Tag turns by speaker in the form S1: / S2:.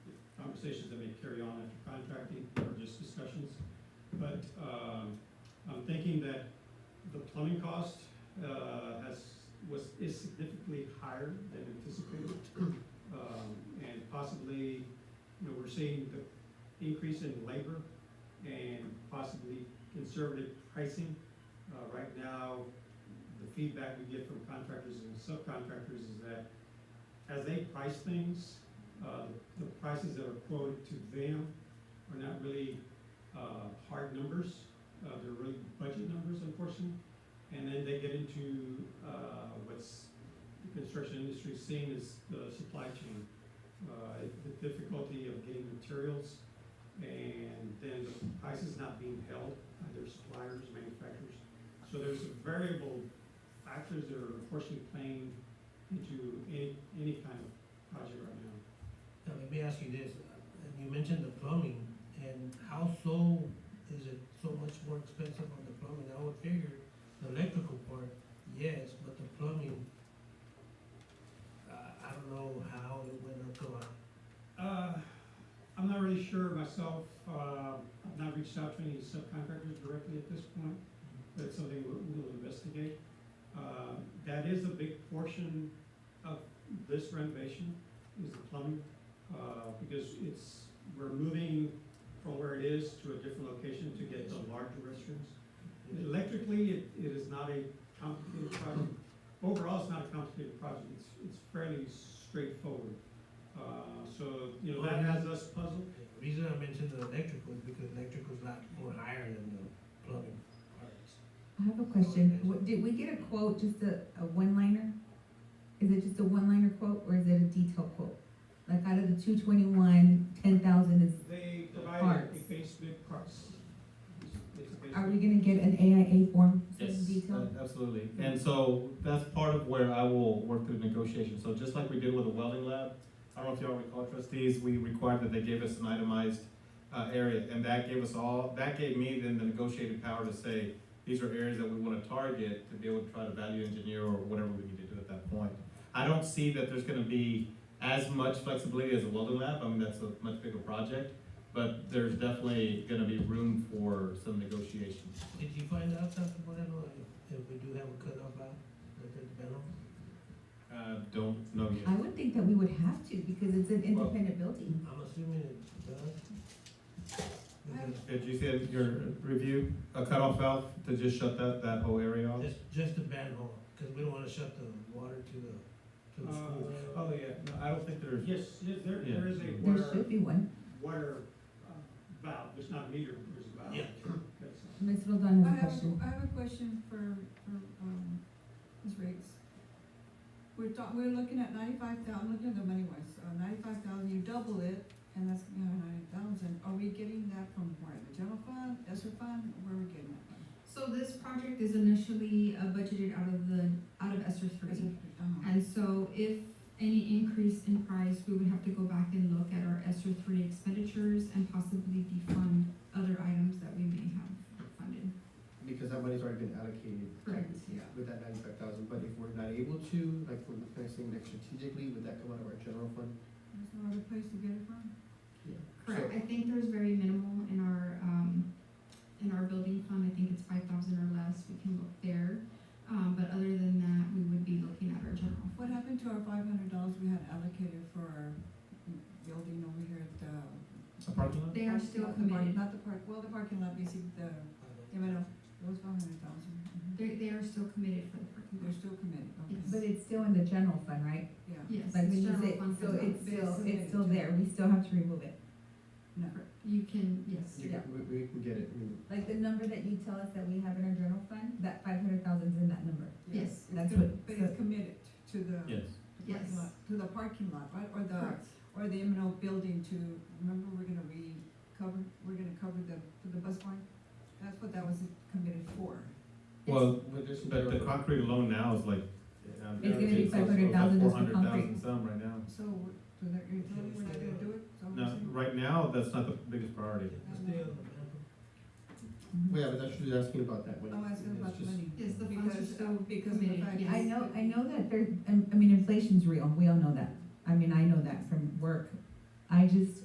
S1: conversations that may carry on after contracting or just discussions. But, um, I'm thinking that the plumbing cost, uh, has, was, is significantly higher than anticipated. Um, and possibly, you know, we're seeing the increase in labor and possibly conservative pricing. Uh, right now, the feedback we get from contractors and subcontractors is that as they price things, uh, the prices that are quoted to them are not really, uh, hard numbers. Uh, they're really budget numbers unfortunately. And then they get into, uh, what's the construction industry seen as the supply chain. Uh, the difficulty of getting materials and then the prices not being held by their suppliers, manufacturers. So there's variable factors that are unfortunately playing into any, any kind of project right now.
S2: Now, let me ask you this, Uh, you mentioned the plumbing, and how so is it so much more expensive on the plumbing? I would figure the electrical part, yes, but the plumbing, uh, I don't know how it went up to, uh,
S1: Uh, I'm not really sure myself, uh, I've not reached out to any subcontractors directly at this point, but it's something we'll, we'll investigate. Uh, that is a big portion of this renovation, is the plumbing, uh, because it's, we're moving from where it is to a different location to get the larger restrooms.
S2: uh,
S1: Electrically, it, it is not a complicated project. Overall, it's not a complicated project. It's, it's fairly straightforward. Uh, so, you know, that has us puzzled.
S2: The reason I mentioned the electrical is because electrical's a lot more higher than the plumbing parts.
S3: I have a question. What- Did we get a quote, just a, a one-liner? Is it just a one-liner quote or is it a detailed quote? Like out of the two twenty-one, ten thousand is,
S1: They provided
S3: Parts.
S1: a base bid price. It's- It's a base
S3: are we
S1: bid.
S3: gonna get an AIA form? so it's
S4: Yes,
S3: Detailed?
S4: uh, absolutely. And so that's part of where I will work through negotiation. So just like we did with the welding lab, I don't know if y'all recall trustees, we required that they give us an itemized uh, area. And that gave us all, that gave me then the negotiated power to say, these are areas that we want to target to be able to try to value engineer or whatever we need to do at that point. I don't see that there's going to be as much flexibility as a welding lab. I mean, that's a much bigger project. But there's definitely going to be room for some negotiation.
S2: Did you find out something, Moreno, if, if we do have a cutoff out, like at the panel?
S4: Uh, don't know yet.
S3: I would think that we would have to because it's an
S4: Well-
S3: independent building.
S2: I'm assuming it does. Because
S4: Did you say in your review, a cutoff valve to just shut that, that whole area off?
S2: Just, just the manhole, because we don't wanna shut the water to the, to the school.
S1: Uh,
S4: Oh, yeah, no, I don't think there's.
S1: Yes, yes, there, there is a
S3: There
S1: water,
S3: should be one.
S1: water uh, valve. There's not a meter, there's a valve.
S2: Yeah.
S1: That's-
S3: Ms. Roldan
S5: I
S3: has a
S5: have,
S3: question.
S5: a- I have a question for, for, um, Ms. Riggs. We're talk, we're looking at ninety-five thousand, looking at the money wise, uh, ninety-five thousand, you double it, and that's gonna be ninety thousand. Are we getting that from where? The general fund, ESSER fund, where are we getting that from?
S6: So this project is initially uh, budgeted out of the, out of ESER
S5: ESSER,
S6: three.
S5: uh-huh.
S6: And so if any increase in price, we would have to go back and look at our ESER three expenditures and possibly defund other items that we may have funded.
S7: Because that money's already been allocated.
S6: Correct,
S7: technically,
S6: yeah.
S7: With that ninety-five thousand, but if we're not able to, like, we're connecting next strategically, would that come out of our general fund?
S5: There's no other place to get it from?
S7: Yeah.
S6: Correct, I think there's very minimal in our, um, in our building fund, I think it's five thousand or less, we can look there. Um, but other than that, we would be looking at our general.
S5: What happened to our five hundred dollars we had allocated for our building over here at, uh?
S4: A parking lot?
S6: They are still
S5: not the park-
S6: committed,
S5: Not the park, well, the parking lot, basically, the, yeah, but, uh, those five hundred thousand.
S6: they, they are still committed for the parking lot.
S5: They're still committed, okay,
S3: But it's still in the general fund, right?
S5: yeah.
S6: Yes,
S3: Like
S6: it's
S3: when you
S6: general
S3: say,
S6: fund
S3: so
S6: funds.
S3: it's still,
S5: It's
S3: it's still there. We still have to remove it.
S5: No.
S6: You can, yes,
S7: You
S3: Yeah.
S7: can- we, we can get it, I mean,
S3: Like the number that you tell us that we have in our general fund, that five hundred thousand is in that number.
S5: Yeah.
S6: Yes,
S5: It's
S3: that's
S5: com-
S3: what-
S5: But it's committed to the.
S4: Yes.
S5: the parking
S6: Yes.
S5: lot- To the parking lot, right, or the,
S6: correct.
S5: or the M and O building to, remember, we're gonna recover, we're gonna cover the, for the bus barn? That's what that was committed for.
S4: Well,
S7: but there's some
S4: but the
S7: general fund.
S4: concrete alone now is like. uh,
S3: It's gonna be 500,000 just for
S4: Four hundred thousand
S3: concrete.
S4: some right now.
S5: So, we're- so they're, you're telling me we're not gonna do it, so. we're
S4: No,
S5: saying-
S4: right now, that's not the biggest priority.
S2: Stay on the manhole.
S3: Mm-hmm.
S7: Well, yeah, but that's, she's asking about that one.
S5: I'm asking Oh, about the money.
S6: Yes, the funds are
S5: Because-
S6: still
S5: Because of the
S6: committed,
S5: fact.
S6: yes.
S3: I know, I know that there, I I mean, inflation's real, we all know that. I mean, I know that from work. I just,